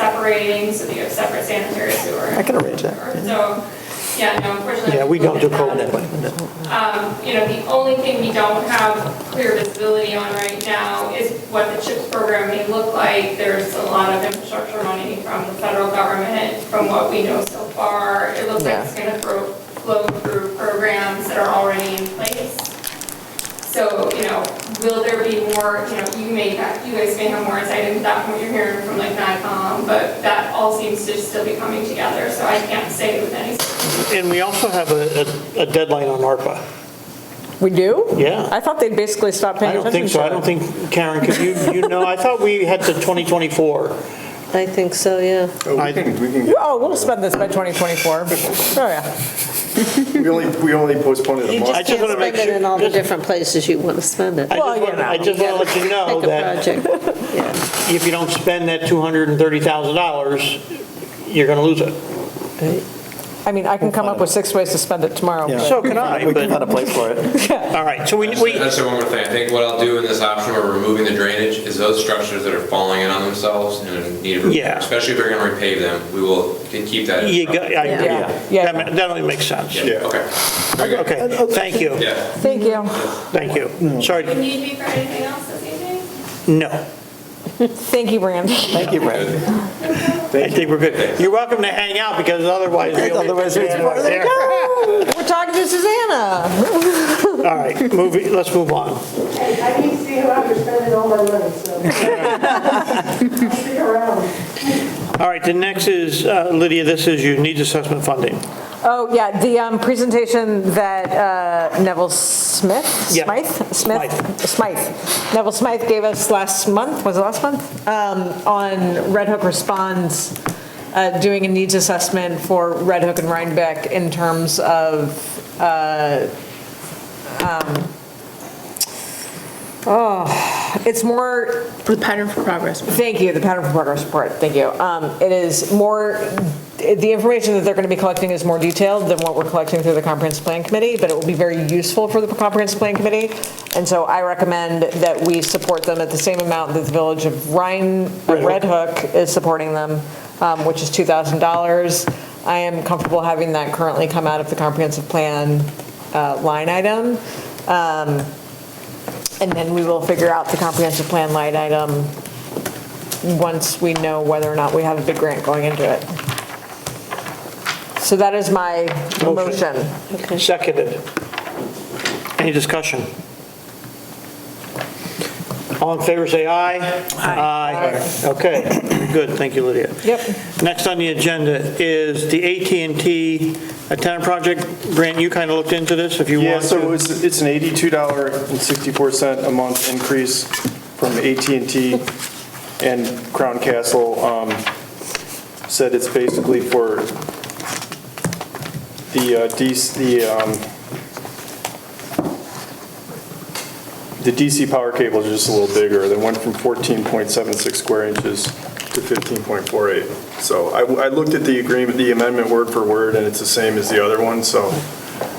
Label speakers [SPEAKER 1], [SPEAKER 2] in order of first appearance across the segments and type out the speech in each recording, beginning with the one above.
[SPEAKER 1] separating, so that you have separate sanitary sewer.
[SPEAKER 2] I can arrange that, yeah.
[SPEAKER 1] So, yeah, no, unfortunately.
[SPEAKER 2] Yeah, we don't do
[SPEAKER 1] can't
[SPEAKER 2] cold
[SPEAKER 1] have-
[SPEAKER 2] mailing.
[SPEAKER 1] Um, You know, the only thing we don't have clear visibility on right now is what the CHIPS program may look like. There's a lot of infrastructure money from the federal government, from what we know so far. It looks like it's going to flow through programs that are already in place. So, you know, will there be more, you know, you may, have- you guys may have more insight into that from what you're hearing from like NICOM, but that all seems to still be coming together, so I can't say with any
[SPEAKER 2] And we also have a, a- a deadline on ARPA.
[SPEAKER 3] We do?
[SPEAKER 2] Yeah.
[SPEAKER 3] I thought they'd basically stopped
[SPEAKER 2] I
[SPEAKER 3] paying
[SPEAKER 2] don't
[SPEAKER 3] attention
[SPEAKER 2] think
[SPEAKER 3] to
[SPEAKER 2] so, I
[SPEAKER 3] it.
[SPEAKER 2] don't think, Karen, because you, you know, I thought we had to 2024.
[SPEAKER 4] I think so, yeah.
[SPEAKER 5] Oh,
[SPEAKER 2] I-
[SPEAKER 5] We can, we can,
[SPEAKER 3] You-
[SPEAKER 5] get-
[SPEAKER 3] Oh, we'll spend this by 2024. Oh, yeah.
[SPEAKER 5] we only, we only postponed it a
[SPEAKER 4] You
[SPEAKER 5] month.
[SPEAKER 4] just
[SPEAKER 2] just
[SPEAKER 4] can't
[SPEAKER 2] wanna make
[SPEAKER 4] spend it
[SPEAKER 2] sure-
[SPEAKER 4] in all the
[SPEAKER 2] just-
[SPEAKER 4] different places you want to spend it.
[SPEAKER 2] I
[SPEAKER 3] Well,
[SPEAKER 2] just
[SPEAKER 3] you
[SPEAKER 2] want, I
[SPEAKER 3] know.
[SPEAKER 2] just want to let you know
[SPEAKER 4] Pick
[SPEAKER 2] that
[SPEAKER 4] a project, yeah.
[SPEAKER 2] if you don't spend that $230,000, you're going to lose it.
[SPEAKER 3] I mean, I can come up with six ways to spend it tomorrow. but-
[SPEAKER 2] So can I,
[SPEAKER 6] We can
[SPEAKER 2] but,
[SPEAKER 6] find a place for it.
[SPEAKER 2] all right, so we, we,
[SPEAKER 7] That's the one more thing. I think what I'll do in this option where we're removing the drainage is those structures that are falling in on themselves and need,
[SPEAKER 2] Yeah.
[SPEAKER 7] repair, especially if we're gonna repave them, we will ke- keep that. in
[SPEAKER 2] you,
[SPEAKER 7] front.
[SPEAKER 2] got- I agree.
[SPEAKER 3] Yeah.
[SPEAKER 2] That ma- that only makes sense.
[SPEAKER 7] Yeah, okay. Very good.
[SPEAKER 2] Okay, thank you,
[SPEAKER 7] Yeah.
[SPEAKER 3] Thank you.
[SPEAKER 2] thank you.
[SPEAKER 1] Do you
[SPEAKER 2] Sorry,
[SPEAKER 1] need me for anything else this evening?
[SPEAKER 2] no,
[SPEAKER 3] Thank you, Randy.
[SPEAKER 6] Thank you, Brad.
[SPEAKER 2] I think we're good. You're welcome to hang out because otherwise. we'll-
[SPEAKER 6] Otherwise, it's more
[SPEAKER 2] There.
[SPEAKER 3] We're talking to Susanna.
[SPEAKER 2] All right, moving, let's move on.
[SPEAKER 8] I need to see how I'm spending all my money, so. Stick around.
[SPEAKER 2] All right, the next is, uh, Lydia, this is your needs assessment funding.
[SPEAKER 3] Oh, yeah, the um, presentation that uh, Neville Smith,
[SPEAKER 2] Yeah.
[SPEAKER 3] Smythe? Smith, Smythe, Neville Smythe gave us last month, was it last month? Um, On Red Hook Responds, uh, doing a needs assessment for Red Hook and Rhinebeck in terms of, uh, um, oh, it's more
[SPEAKER 9] The pattern for progress.
[SPEAKER 3] Thank you, the pattern for progress report, thank you. Um, It is more, the information that they're going to be collecting is more detailed than what we're collecting through the comprehensive plan committee, but it will be very useful for the comprehensive plan committee. And so I recommend that we support them at the same amount that the village of Rhine, of Red Hook is supporting them, um, which is $2,000. I am comfortable having that currently come out of the comprehensive plan uh, line item. Um, And then we will figure out the comprehensive plan line item once we know whether or not we have a big grant going into it. So that is my
[SPEAKER 2] Motion.
[SPEAKER 3] motion.
[SPEAKER 2] Seconded. Any discussion? All in favor, say aye. Aye. Okay, good, thank you, Lydia.
[SPEAKER 3] Yep.
[SPEAKER 2] Next on the agenda is the at and T antenna project. Grant, you kind of looked into this, if you
[SPEAKER 5] Yeah,
[SPEAKER 2] want
[SPEAKER 5] so
[SPEAKER 2] to.
[SPEAKER 5] it's, it's an $82.64 a month increase from at and T and Crown Castle. um, Said it's basically for the, uh, DC the, um, the DC power cables are just a little bigger. They went from 14.76 square inches to 15.48. So I, I looked at the agreement, the amendment word for word, and it's the same as the other one, so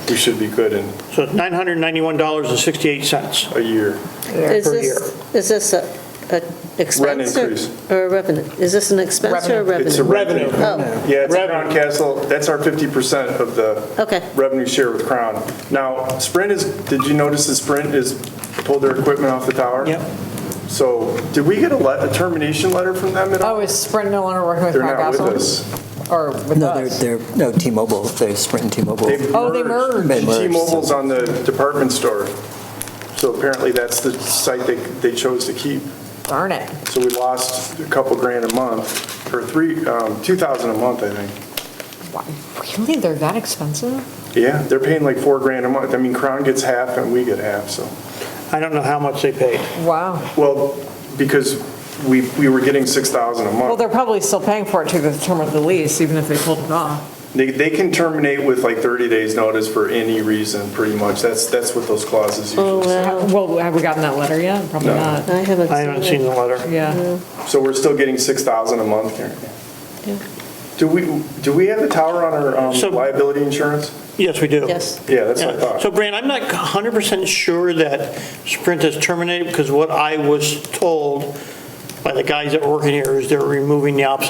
[SPEAKER 5] we should be good in
[SPEAKER 2] So it's $991.68.
[SPEAKER 5] a year.
[SPEAKER 4] Is
[SPEAKER 2] per
[SPEAKER 4] this, is this a, a expense or-
[SPEAKER 5] increase.
[SPEAKER 4] or a revenue? Is this an expense or a
[SPEAKER 5] It's a
[SPEAKER 4] revenue?
[SPEAKER 2] Revenue.
[SPEAKER 4] Oh,
[SPEAKER 5] Yeah, it's
[SPEAKER 2] Revenue.
[SPEAKER 5] Crown Castle, that's our 50% of the
[SPEAKER 4] okay.
[SPEAKER 5] revenue share with Crown. Now, Sprint is, did you notice that Sprint is pulled their equipment off the tower?
[SPEAKER 2] Yep.
[SPEAKER 5] So, did we get a le- a termination letter from them at all?
[SPEAKER 3] Oh, is Sprint no longer working with
[SPEAKER 5] They're
[SPEAKER 3] Crown
[SPEAKER 5] not with
[SPEAKER 3] Castle?
[SPEAKER 5] us.
[SPEAKER 3] Or with
[SPEAKER 6] No, they're,
[SPEAKER 3] us?
[SPEAKER 6] they're, no, T-Mobile, they're Sprint and T-Mobile.
[SPEAKER 5] They've
[SPEAKER 3] Oh, they
[SPEAKER 6] They merged, so-
[SPEAKER 5] T-Mobile's on the department store. So apparently that's the site they, they chose to keep.
[SPEAKER 3] Darn it.
[SPEAKER 5] So we lost a couple grand a month, or three, um, 2,000 a month, I think.
[SPEAKER 3] Wow, Really? They're that expensive?
[SPEAKER 5] Yeah, they're paying like four grand a month. I mean, Crown gets half and we get half, so.
[SPEAKER 2] I don't know how much they paid.
[SPEAKER 3] Wow.
[SPEAKER 5] Well, because we, we were getting 6,000 a
[SPEAKER 3] Well,
[SPEAKER 5] month.
[SPEAKER 3] they're probably still paying for it to the term of the lease, even if they pulled it off.
[SPEAKER 5] They, they can terminate with like 30 days notice for any reason, pretty much. That's, that's what those clauses
[SPEAKER 4] Oh,
[SPEAKER 5] usually say.
[SPEAKER 4] wow.
[SPEAKER 3] Well, have we gotten that letter yet? Probably
[SPEAKER 5] No.
[SPEAKER 3] not.
[SPEAKER 4] I haven't
[SPEAKER 2] I haven't seen the letter.
[SPEAKER 3] Yeah.
[SPEAKER 5] So we're still getting 6,000 a month here.
[SPEAKER 4] Yeah.
[SPEAKER 5] Do we, do we have the tower on our um,
[SPEAKER 2] So-
[SPEAKER 5] liability insurance?
[SPEAKER 2] Yes, we do.
[SPEAKER 4] Yes.
[SPEAKER 5] Yeah, that's what I
[SPEAKER 2] Yeah. So
[SPEAKER 5] thought.
[SPEAKER 2] Brand, I'm not 100% sure that Sprint is terminated because what I was told by the guys that were working here is they're removing the obsolete